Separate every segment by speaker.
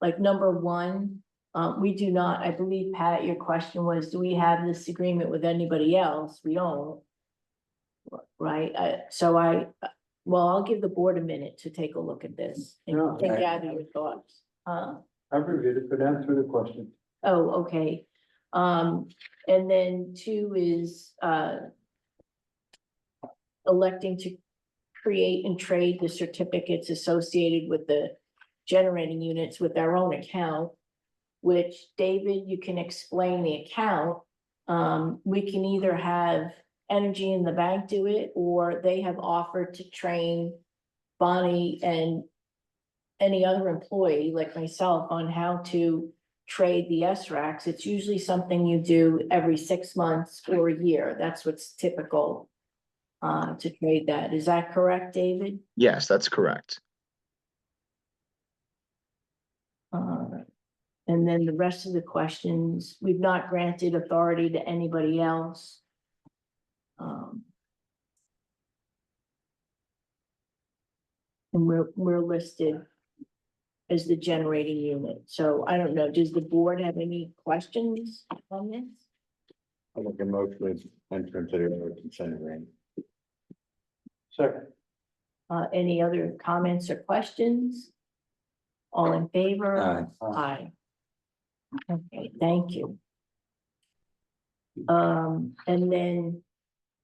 Speaker 1: like number one, um, we do not, I believe, Pat, your question was, do we have this agreement with anybody else? We don't. Right, I, so I, well, I'll give the board a minute to take a look at this and
Speaker 2: No,
Speaker 1: and
Speaker 2: I-
Speaker 1: gather your thoughts. Huh?
Speaker 2: I've reviewed it, but answer the question.
Speaker 1: Oh, okay. Um, and then two is, uh, electing to create and trade the certificates associated with the generating units with our own account, which David, you can explain the account. Um, we can either have Energy in the Bank do it, or they have offered to train Bonnie and any other employee like myself on how to trade the S racks. It's usually something you do every six months or a year. That's what's typical uh, to trade that. Is that correct, David?
Speaker 3: Yes, that's correct.
Speaker 1: Uh, And then the rest of the questions, we've not granted authority to anybody else. Um, And we're, we're listed as the generating unit. So I don't know, does the board have any questions on this?
Speaker 4: I'll make a motion to enter into the consent agreement.
Speaker 2: Second,
Speaker 1: Uh, any other comments or questions? All in favor? Aye. Okay, thank you. Um, and then,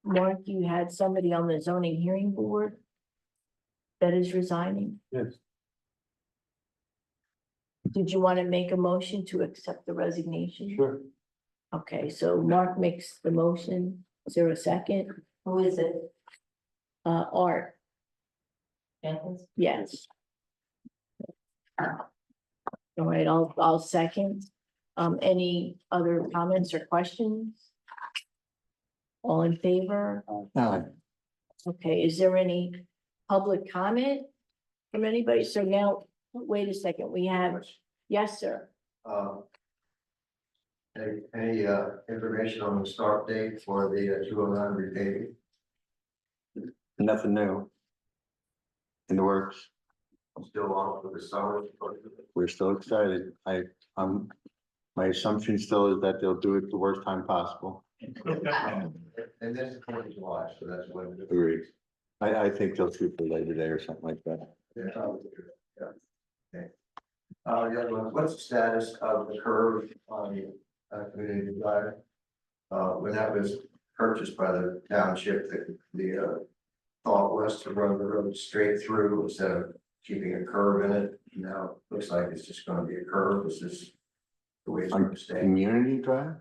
Speaker 1: Mark, you had somebody on the zoning hearing board that is resigning.
Speaker 2: yes,
Speaker 1: Did you want to make a motion to accept the resignation?
Speaker 2: sure.
Speaker 1: Okay, so Mark makes the motion. Is there a second?
Speaker 5: Who is it?
Speaker 1: Uh, Art,
Speaker 5: Jenkins?
Speaker 1: yes. All right, I'll, I'll second. Um, any other comments or questions? All in favor?
Speaker 4: Aye.
Speaker 1: Okay, is there any public comment from anybody? So now, wait a second, we have, yes, sir.
Speaker 6: uh, Any, any, uh, information on the start date for the two oh nine repaving?
Speaker 4: Nothing new. In the works,
Speaker 6: Still on for the summer?
Speaker 4: we're still excited. I, um, my assumption still is that they'll do it the worst time possible.
Speaker 6: And this is twenty July, so that's when.
Speaker 4: Agreed. I, I think they'll shoot for Labor Day or something like that.
Speaker 6: Yeah. Okay. Uh, the other one, what's the status of the curve on the, uh, community drive? Uh, when that was purchased by the township, the, the, uh, thought was to run the road straight through instead of keeping a curve in it. Now, it looks like it's just gonna be a curve, this is the way it's gonna stay.
Speaker 4: Community drive?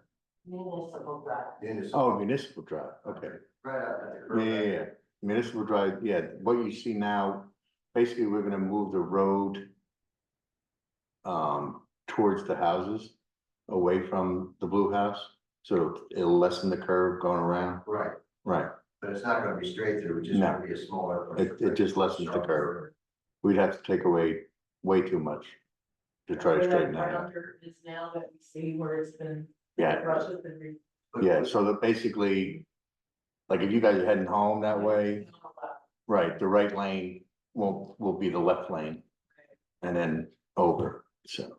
Speaker 5: Municipal drive.
Speaker 6: And it's
Speaker 4: Oh, municipal drive, okay.
Speaker 6: Right out at the
Speaker 4: Yeah,
Speaker 6: curve.
Speaker 4: yeah, yeah. municipal drive, yeah, what you see now, basically, we're gonna move the road. Um, towards the houses, away from the blue house, so it'll lessen the curve going around,
Speaker 6: Right,
Speaker 4: right,
Speaker 6: but it's not gonna be straight through, it's just
Speaker 4: No.
Speaker 6: gonna be a smaller.
Speaker 4: it, it just lessens the curve, we'd have to take away way too much. To try
Speaker 5: Where
Speaker 4: to
Speaker 5: that
Speaker 4: straighten that out,
Speaker 5: rounder is now that we see where it's been.
Speaker 4: Yeah.
Speaker 5: Rush has been. re-
Speaker 6: But-
Speaker 4: yeah, so that basically. Like if you guys are heading home that way, right, the right lane will, will be the left lane. And then over, so.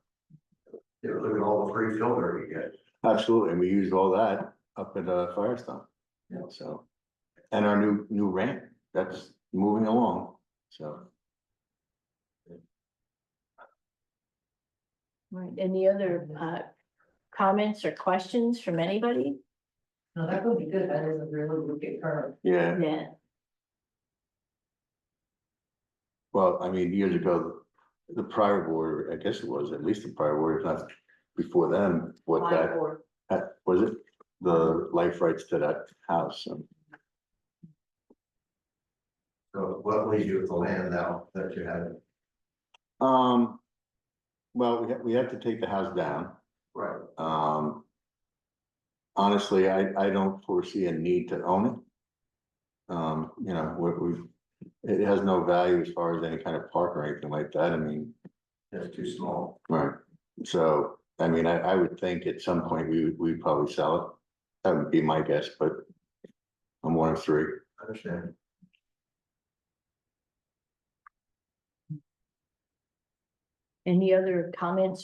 Speaker 6: Yeah, Look at all the free filter you get.
Speaker 4: Absolutely, and we used all that up at uh Firestone.
Speaker 6: Yeah.
Speaker 4: So, and our new, new ramp, that's moving along, so.
Speaker 1: Right, any other uh comments or questions from anybody?
Speaker 5: No, that would be good, that is a really wicked curve.
Speaker 4: Yeah,
Speaker 1: Yeah,
Speaker 4: well, I mean, years ago, the prior board, I guess it was, at least the prior board, if not before them, what that,
Speaker 5: Or-
Speaker 4: that- was it? The life rights to that house, so,
Speaker 6: So what will you do with the land now that you have?
Speaker 4: um. Well, we have, we have to take the house down.
Speaker 6: Right.
Speaker 4: Um. Honestly, I, I don't foresee a need to own it. Um, you know, we, we, it has no value as far as any kind of park or anything like that, I mean,
Speaker 6: That's too small.
Speaker 4: right? So, I mean, I, I would think at some point we, would we'd probably sell it. That would be my guess, but I'm one of three.
Speaker 6: I Understand.
Speaker 1: Any other comments